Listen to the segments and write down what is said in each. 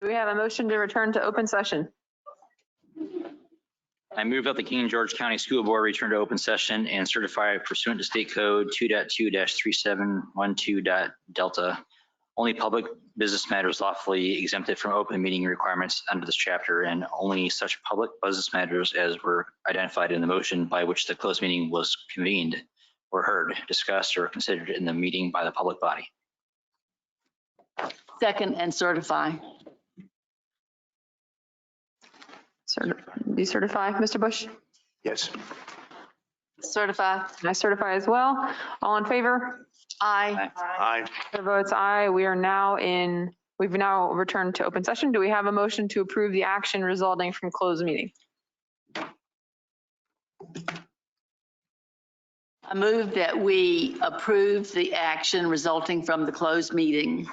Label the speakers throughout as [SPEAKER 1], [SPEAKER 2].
[SPEAKER 1] Do we have a motion to return to open session?
[SPEAKER 2] I move that the King and George County School Board return to open session and certify pursuant to state code 2.2-3712. Delta. Only public business matters lawfully exempted from open meeting requirements under this chapter and only such public business matters as were identified in the motion by which the closed meeting was convened were heard, discussed, or considered in the meeting by the public body.
[SPEAKER 3] Second and certify.
[SPEAKER 1] Cer- Do you certify, Mr. Bush?
[SPEAKER 4] Yes.
[SPEAKER 3] Certify.
[SPEAKER 1] I certify as well. All in favor?
[SPEAKER 3] Aye.
[SPEAKER 4] Aye.
[SPEAKER 1] Chair votes aye. We are now in, we've now returned to open session. Do we have a motion to approve the action resulting from closed meeting?
[SPEAKER 3] I move that we approve the action resulting from the closed meeting.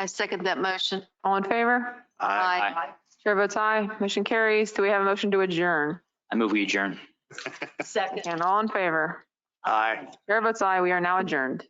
[SPEAKER 3] I second that motion.
[SPEAKER 1] All in favor?
[SPEAKER 4] Aye.
[SPEAKER 1] Chair votes aye. Motion carries. Do we have a motion to adjourn?
[SPEAKER 2] I move we adjourn.
[SPEAKER 3] Second.
[SPEAKER 1] And all in favor?
[SPEAKER 4] Aye.
[SPEAKER 1] Chair votes aye. We are now adjourned.